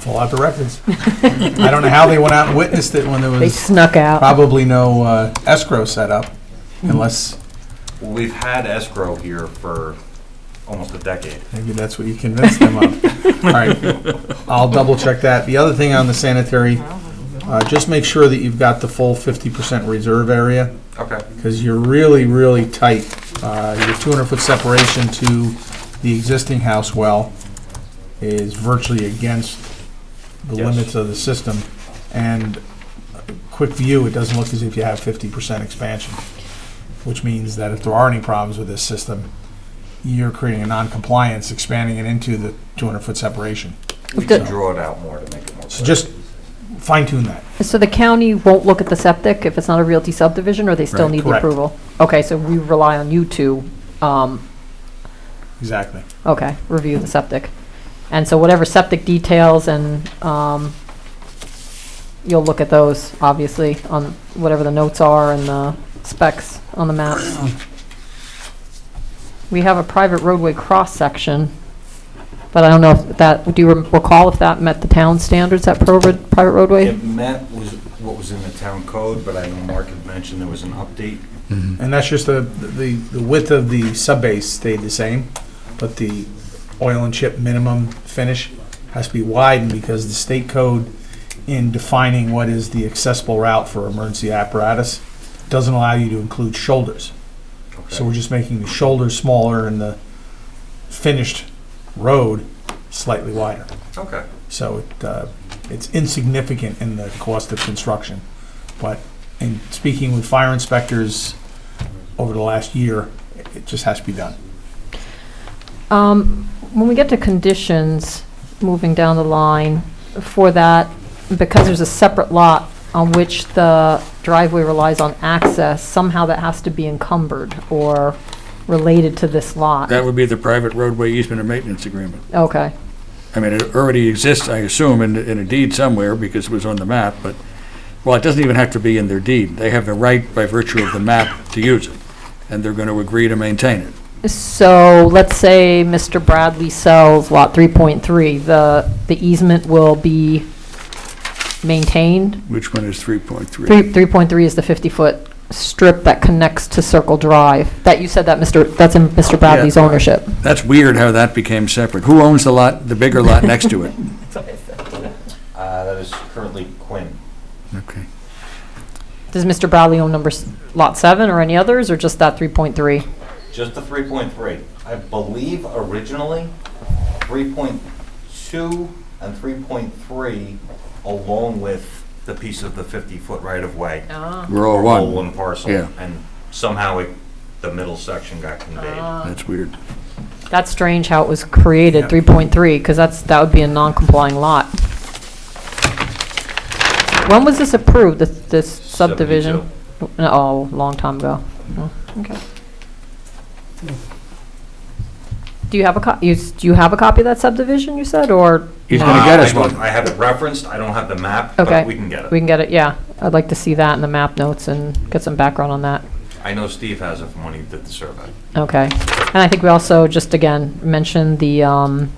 fill out the records. I don't know how they went out and witnessed it when there They was snuck out. probably no uh, escrow set up unless, Well, we've had escrow here for almost a decade. maybe that's what you convinced them of. All right, I'll double check that. The other thing on the sanitary, uh, just make sure that you've got the full 50% reserve area. Okay. because you're really, really tight. Uh, Your 200-foot separation to the existing house well is virtually against the Yes. limits of the system. And uh, quick view, it doesn't look as if you have 50% expansion, which means that if there are any problems with this system, you're creating a non-compliance, expanding it into the 200-foot separation. We The- can draw it out more to make it more So clear. just fine tune that. So the county won't look at the septic if it's not a realty subdivision, or they still Right, need the correct. approval? Okay, so we rely on you to, um, Exactly. okay, review the septic. And so whatever septic details and, um, you'll look at those, obviously, on whatever the notes are and the specs on the maps. We have a private roadway cross-section, but I don't know if that, do you recall if that met the town standards, that pro- private roadway? It met was what was in the town code, but I know Mark had mentioned there was an update. And that's just the, the, the width of the sub base stayed the same, but the oil and chip minimum finish has to be widened because the state code in defining what is the accessible route for emergency apparatus doesn't allow you to include shoulders. So we're just making the shoulders smaller and the finished road slightly wider. Okay. So it, uh, it's insignificant in the cost of construction. But in speaking with fire inspectors over the last year, it- it just has to be done. Um, When we get to conditions, moving down the line, for that, because there's a separate lot on which the driveway relies on access, somehow that has to be encumbered or related to this lot. That would be the private roadway easement and maintenance agreement. Okay, I mean, it already exists, I assume, in, in a deed somewhere because it was on the map, but, well, it doesn't even have to be in their deed. They have the right by virtue of the map to use it, and they're going to agree to maintain it. so let's say Mr. Bradley sells Lot 3.3, the the easement will be maintained? Which one is 3.3? Three- 3.3 is the 50-foot strip that connects to Circle Drive. That, you said that, Mr., that's in Mr. Bradley's ownership. That's weird how that became separate. Who owns the lot, the bigger lot next to it? Uh, that is currently Quinn. Okay. Does Mr. Bradley own number, s- lot seven or any others, or just that 3.3? Just the three point three. I believe originally, three point two and three point three, along with the piece of the fifty foot right of way. We're all All one. one parcel, Yeah. and somehow it, the middle section got conveyed. That's weird. That's strange how it was created, 3.3, because that's, that would be a non-complying lot. When was this approved, this- this subdivision? Oh, long time ago. Oh, Okay. Do you have a, co- you s- do you have a copy of that subdivision, you said, or? He's no? gonna Uh, get I us don't- one. I have it referenced, I don't have the map, Okay. but we can get We it. can get it, yeah. I'd like to see that in the map notes and get some background on that. I know Steve has it from when he did the survey. Okay. And I think we also, just again, mentioned the, um,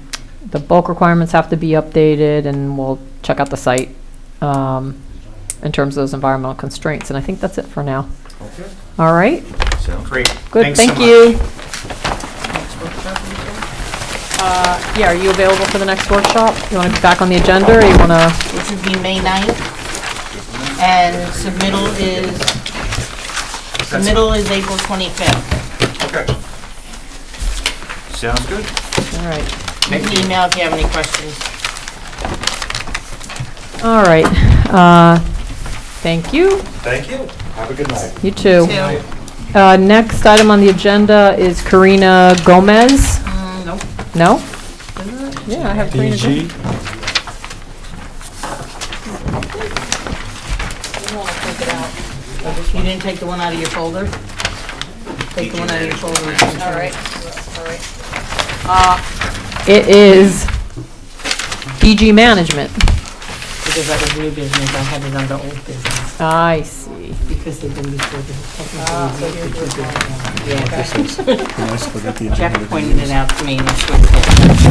the bulk requirements have to be updated, and we'll check out the site, um, in terms of those environmental constraints, and I think that's it for now. Okay. All right? Sounds great. Good, Thanks so thank you. Uh, yeah, are you available for the next workshop? You want to be back on the agenda, or you want to, which would be May 9th. And submittal is, submittal is April 25th. Okay. Sounds good. all right. You can email if you have any questions. All right, uh, thank you, Thank you. Have a good night. you too. Two. Uh, Next item on the agenda is Karina Gomez. Mm, Nope. No? Yeah, I have Karina Gomez. You didn't take the one out of your folder? Take the one out of your folder. All right. It is BG Management. Because that was new business, I had it under old business, I see. because they've been before the. Yeah, Can I still get the Jeff agenda? pointed it out to me, and it's with